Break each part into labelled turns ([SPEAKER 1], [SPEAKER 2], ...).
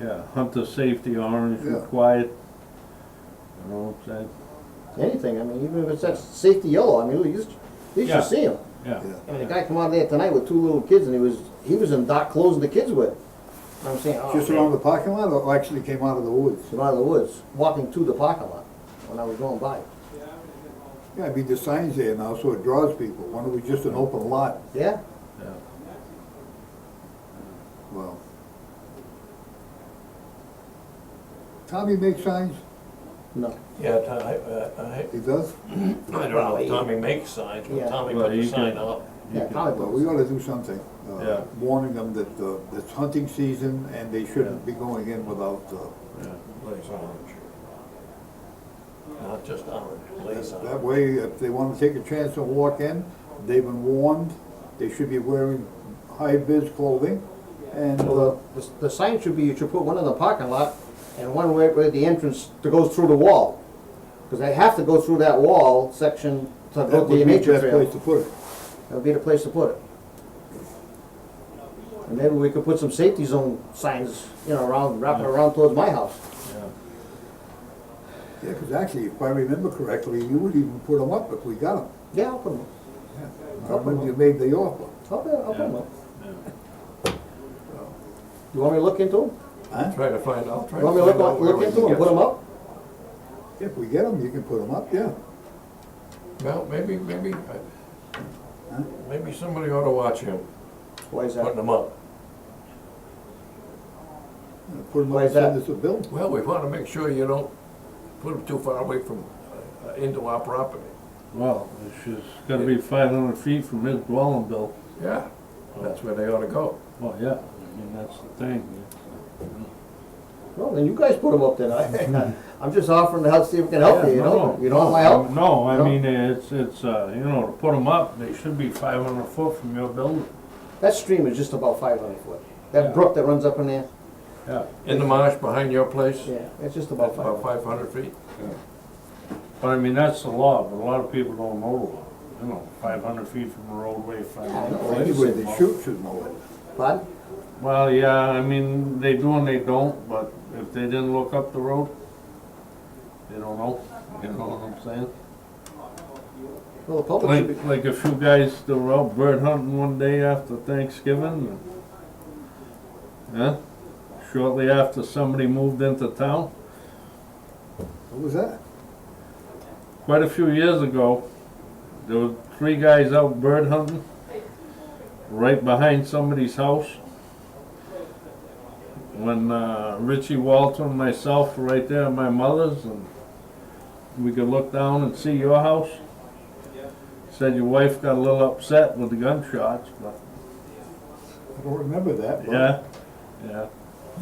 [SPEAKER 1] Yeah, hunter safety, orange
[SPEAKER 2] Yeah.
[SPEAKER 1] required. You know, that,
[SPEAKER 3] anything, I mean, even if it's that safety yellow, I mean, at least, at least
[SPEAKER 1] Yeah.
[SPEAKER 3] you see him.
[SPEAKER 1] yeah.
[SPEAKER 3] I mean, the guy come out there tonight with two little kids and he was, he was in dark clothes and the kids were. I'm saying, oh,
[SPEAKER 2] Just
[SPEAKER 3] man.
[SPEAKER 2] around the parking lot, or actually came out of the woods?
[SPEAKER 3] It's out of the woods, walking to the parking lot when I was going by.
[SPEAKER 2] Yeah, I mean, the sign's there now, so it draws people. Why don't we just an open lot?
[SPEAKER 3] Yeah,
[SPEAKER 2] Well. Tommy makes signs?
[SPEAKER 3] no,
[SPEAKER 4] Yeah, Tom, I, I, I-
[SPEAKER 2] He does?
[SPEAKER 4] I don't know, if Tommy makes signs, but
[SPEAKER 3] Yeah.
[SPEAKER 4] Tommy
[SPEAKER 1] Well,
[SPEAKER 4] put the
[SPEAKER 1] you
[SPEAKER 4] sign
[SPEAKER 1] can-
[SPEAKER 4] up.
[SPEAKER 3] yeah, probably.
[SPEAKER 2] Well, we ought to do something. uh,
[SPEAKER 1] Yeah.
[SPEAKER 2] Warning them that, uh, it's hunting season and they shouldn't be going in without, uh,
[SPEAKER 4] Blaze orange. Not just orange, blaze
[SPEAKER 2] that
[SPEAKER 4] orange.
[SPEAKER 2] way, if they wanna take a chance and walk in, they've been warned, they should be wearing high-vis clothing and, uh,
[SPEAKER 3] The, the sign should be, you should put one in the parking lot and one where, where the entrance that goes through the wall. Cause they have to go through that wall section to
[SPEAKER 2] that
[SPEAKER 3] go
[SPEAKER 2] would
[SPEAKER 3] to
[SPEAKER 2] be
[SPEAKER 3] the
[SPEAKER 2] the
[SPEAKER 3] nature
[SPEAKER 2] best place
[SPEAKER 3] trail.
[SPEAKER 2] to put it.
[SPEAKER 3] That would be the place to put it. And maybe we could put some safety zone signs, you know, around, wrapping around towards my house.
[SPEAKER 2] Yeah, because actually, if I remember correctly, you would even put them up if we got them.
[SPEAKER 3] Yeah, I'll put them,
[SPEAKER 2] I remember you made the offer.
[SPEAKER 3] I'll, put- I'll put 'em up.
[SPEAKER 1] Yeah.
[SPEAKER 3] You want me to look into them?
[SPEAKER 4] Try to find out, try
[SPEAKER 3] You want me to look, look into them, put them up?
[SPEAKER 2] If we get them, you can put them up, yeah.
[SPEAKER 4] Well, maybe, maybe, I- maybe somebody ought to watch him
[SPEAKER 3] Why is
[SPEAKER 4] putting
[SPEAKER 3] that?
[SPEAKER 4] them up.
[SPEAKER 2] And Put them up
[SPEAKER 3] Why
[SPEAKER 2] and
[SPEAKER 3] is
[SPEAKER 2] send
[SPEAKER 3] that?
[SPEAKER 2] us a bill.
[SPEAKER 4] Well, we want to make sure you don't put them too far away from, uh, into our property.
[SPEAKER 1] Well, it's just gotta be five hundred feet from his dwelling, Bill.
[SPEAKER 4] Yeah, that's where they ought to go.
[SPEAKER 1] Well, yeah, I mean, that's the thing.
[SPEAKER 3] Well, then you guys put them up then. I, I'm just offering to help, see if we can help you, you know? You don't want my help?
[SPEAKER 1] No, I
[SPEAKER 3] No?
[SPEAKER 1] mean, it's, it's, uh, you know, to put them up, they should be five hundred foot from your building.
[SPEAKER 3] That stream is just about five hundred foot.
[SPEAKER 1] Yeah.
[SPEAKER 3] That brook that runs up in there,
[SPEAKER 1] Yeah.
[SPEAKER 4] In the marsh behind your place,
[SPEAKER 3] yeah, it's just about five
[SPEAKER 4] about
[SPEAKER 3] hundred.
[SPEAKER 4] five hundred feet.
[SPEAKER 1] But I mean, that's the law, but a lot of people don't know the law. You know, five hundred feet from a roadway, five
[SPEAKER 3] I
[SPEAKER 1] hundred.
[SPEAKER 3] know.
[SPEAKER 2] Well, anyway, the chute should know it.
[SPEAKER 3] Pardon?
[SPEAKER 1] Well, yeah, I mean, they do and they don't, but if they didn't look up the road, they don't know, you know what I'm saying?
[SPEAKER 3] Well, the public should be,
[SPEAKER 1] Like, like a few guys that were out bird hunting one day after Thanksgiving. and- Huh? Shortly after somebody moved into town,
[SPEAKER 2] What was that?
[SPEAKER 1] quite a few years ago, there were three guys out bird hunting, right behind somebody's house. When uh, Richie Walter and myself were right there at my mother's, and we could look down and see your house. Said your wife got a little upset with the gunshots, but
[SPEAKER 2] I don't remember that. but-
[SPEAKER 1] yeah, yeah.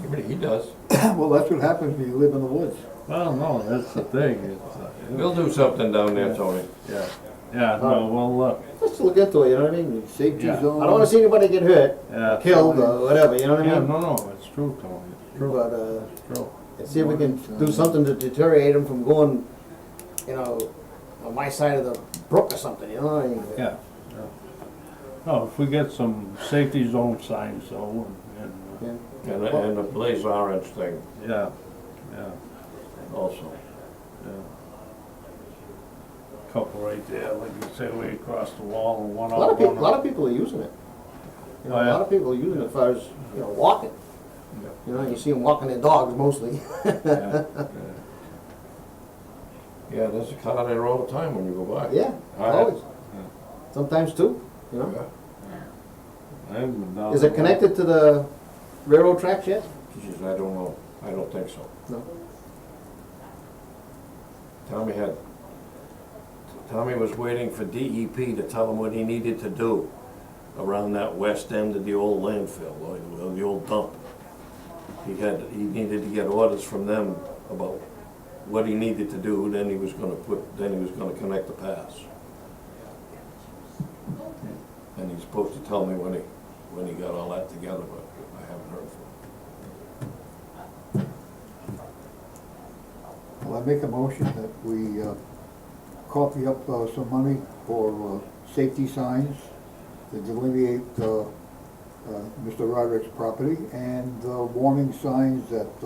[SPEAKER 4] Maybe he does.
[SPEAKER 2] Well, that's what happens when you live in the woods.
[SPEAKER 1] Well, no, that's the thing. It's, uh,
[SPEAKER 4] We'll do something down there, Tony.
[SPEAKER 1] yeah, yeah. No, well, look,
[SPEAKER 3] let's look into it, you know what I mean?
[SPEAKER 2] Safety
[SPEAKER 1] Yeah.
[SPEAKER 2] zone.
[SPEAKER 3] I don't wanna see anybody get hurt,
[SPEAKER 1] yeah.
[SPEAKER 3] killed, or whatever, you know what
[SPEAKER 1] Yeah,
[SPEAKER 3] I mean?
[SPEAKER 1] no, no, it's true, Tony. It's true.
[SPEAKER 3] But, uh,
[SPEAKER 1] True.
[SPEAKER 3] and see if we can
[SPEAKER 1] Uh,
[SPEAKER 3] do something to deteriorate them from going, you know, on my side of the brook or something, you know what I mean?
[SPEAKER 1] Yeah. yeah. No, if we get some safety zone signs though, and, and,
[SPEAKER 3] Yeah.
[SPEAKER 4] And, a- and the blaze orange thing
[SPEAKER 1] uh, yeah, yeah,
[SPEAKER 4] also.
[SPEAKER 1] yeah. Couple right there, like you say, way across the wall and one
[SPEAKER 3] A lot
[SPEAKER 1] up,
[SPEAKER 3] of people,
[SPEAKER 1] one
[SPEAKER 3] a lot
[SPEAKER 1] up.
[SPEAKER 3] of people are using it. You know,
[SPEAKER 1] Oh,
[SPEAKER 3] a
[SPEAKER 1] yeah.
[SPEAKER 3] lot of people are using it as far as, you know, walking.
[SPEAKER 1] Yeah.
[SPEAKER 3] You know, you see them walking their dogs mostly.
[SPEAKER 1] Yeah,
[SPEAKER 4] Yeah, there's a car there all the time when you go by.
[SPEAKER 3] Yeah,
[SPEAKER 4] All right.
[SPEAKER 3] always. Sometimes two, you know.
[SPEAKER 4] Yeah.
[SPEAKER 1] I haven't been down
[SPEAKER 3] Is it
[SPEAKER 1] there.
[SPEAKER 3] connected to the railroad tracks yet?
[SPEAKER 4] Geez, I don't know. I don't think so.
[SPEAKER 3] No.
[SPEAKER 4] Tommy had, Tommy was waiting for DEP to tell him what he needed to do around that west end of the old landfill, or the- or the old dump. He had, he needed to get orders from them about what he needed to do, then he was gonna put, then he was gonna connect the paths. And he's supposed to tell me when he, when he got all that together, but I haven't heard from him.
[SPEAKER 2] Well, I make a motion that we uh, copy up uh, some money for uh, safety signs to delineate uh, uh, Mr. Roderick's property, and the warning signs that uh,